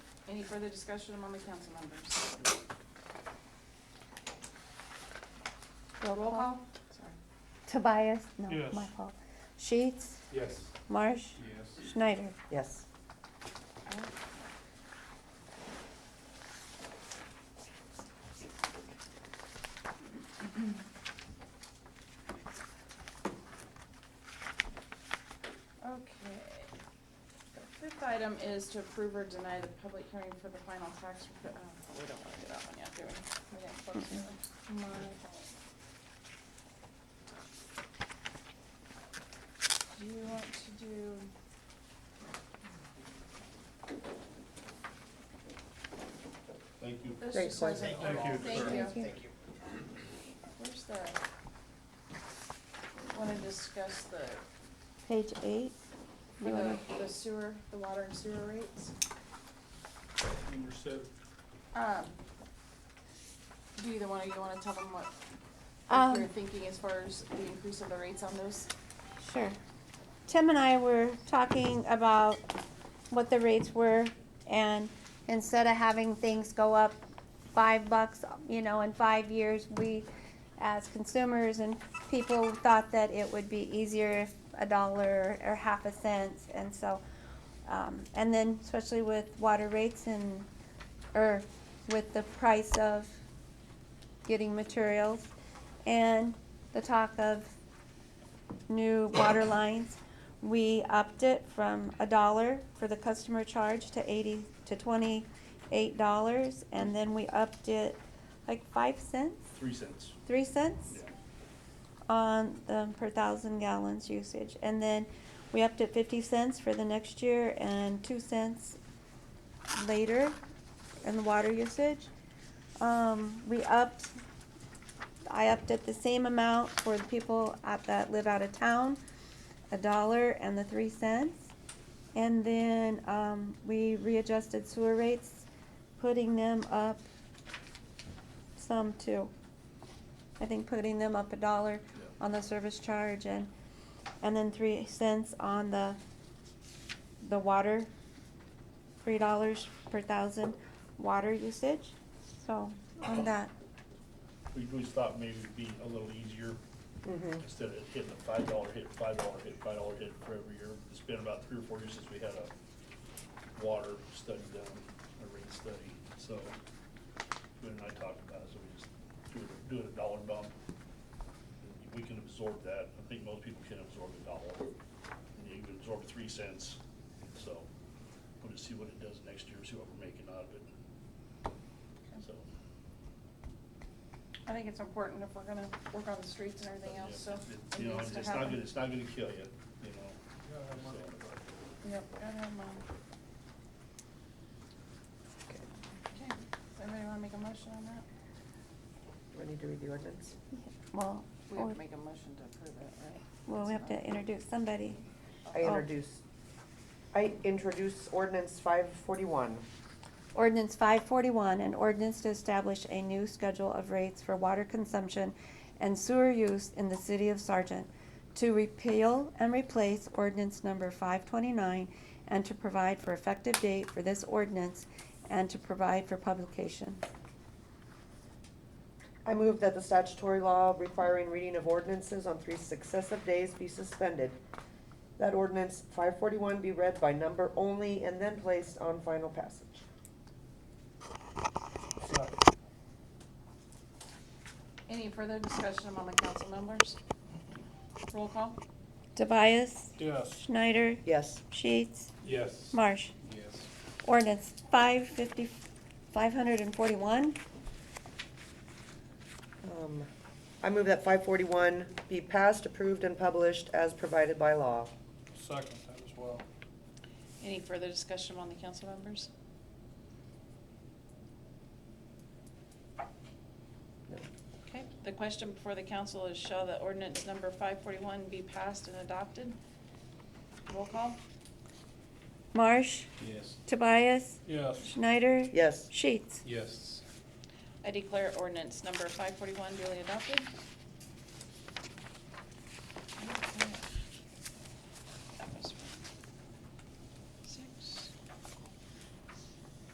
Any further discussion among the council members? Roll call? Sorry. Tobias, no, Yes. my fault. Sheets, Yes. Marsh, Yes. Schneider. Yes. Alright. Okay. The fifth item is to approve or deny the public hearing for the final tax, rep- uh, we don't wanna do that one yet, do we? We didn't close that one. My fault. Do you want to do? Thank you. This Great just says question. it all. Thank you. Thank you. you. Where's the, wanna discuss the, Page eight. for You wanna- the- the sewer, the water and sewer rates? Number seven. Um, do either one of you wanna tell them what, Um, what you're thinking as far as the increase of the rates on those? Sure. Tim and I were talking about what the rates were, and instead of having things go up five bucks, you know, in five years, we, as consumers and people, thought that it would be easier if a dollar or half a cent, and so, um, and then especially with water rates and, or with the price of getting materials, and the talk of new water lines. We upped it from a dollar for the customer charge to eighty, to twenty-eight dollars, and then we upped it like five cents, Three cents. three cents? on the per thousand gallons usage. And then we upped it fifty cents for the next year and two cents later in the water usage. Um, we upped, I upped it the same amount for the people at, that live out of town, a dollar and the three cents. And then, um, we readjusted sewer rates, putting them up some too. I think putting them up a dollar Yeah. on the service charge and, and then three cents on the, the water, three dollars per thousand water usage, so, on that. We always thought maybe it'd be a little easier, Mm-hmm. instead of hitting a five dollar hit, five dollar hit, five dollar hit for every year. It's been about three or four years since we had a water study done, a rate study, so. Gwen and I talked about it, so we just do it, do it a dollar bump. We can absorb that, I think most people can absorb a dollar, and you can absorb three cents, so. We'll just see what it does next year, see what we're making out of it. So, I think it's important if we're gonna work on the streets and everything else, so it You know, needs it's to not gonna, happen. it's not gonna kill you, you know. Yep, gotta have 'em on. Okay, does anybody wanna make a motion on that? Do I need to read the ordinance? Well, We have to make a motion to approve it, right? well, we have to introduce somebody. I Oh. introduce, I introduce ordinance five forty-one. Ordinance five forty-one, an ordinance to establish a new schedule of rates for water consumption and sewer use in the city of Sargent, to repeal and replace ordinance number five twenty-nine, and to provide for effective date for this ordinance, and to provide for publication. I move that the statutory law requiring reading of ordinances on three successive days be suspended. That ordinance five forty-one be read by number only and then placed on final passage. Any further discussion among the council members? Roll call? Tobias, Yes. Schneider, Yes. Sheets, Yes. Marsh. Yes. Ordinance five fifty, five hundred and forty-one. Um, I move that five forty-one be passed, approved, and published as provided by law. Second that as well. Any further discussion among the council members? Okay, the question before the council is shall the ordinance number five forty-one be passed and adopted? Roll call? Marsh, Yes. Tobias, Yes. Schneider. Yes. Sheets. Yes. I declare ordinance number five forty-one duly adopted.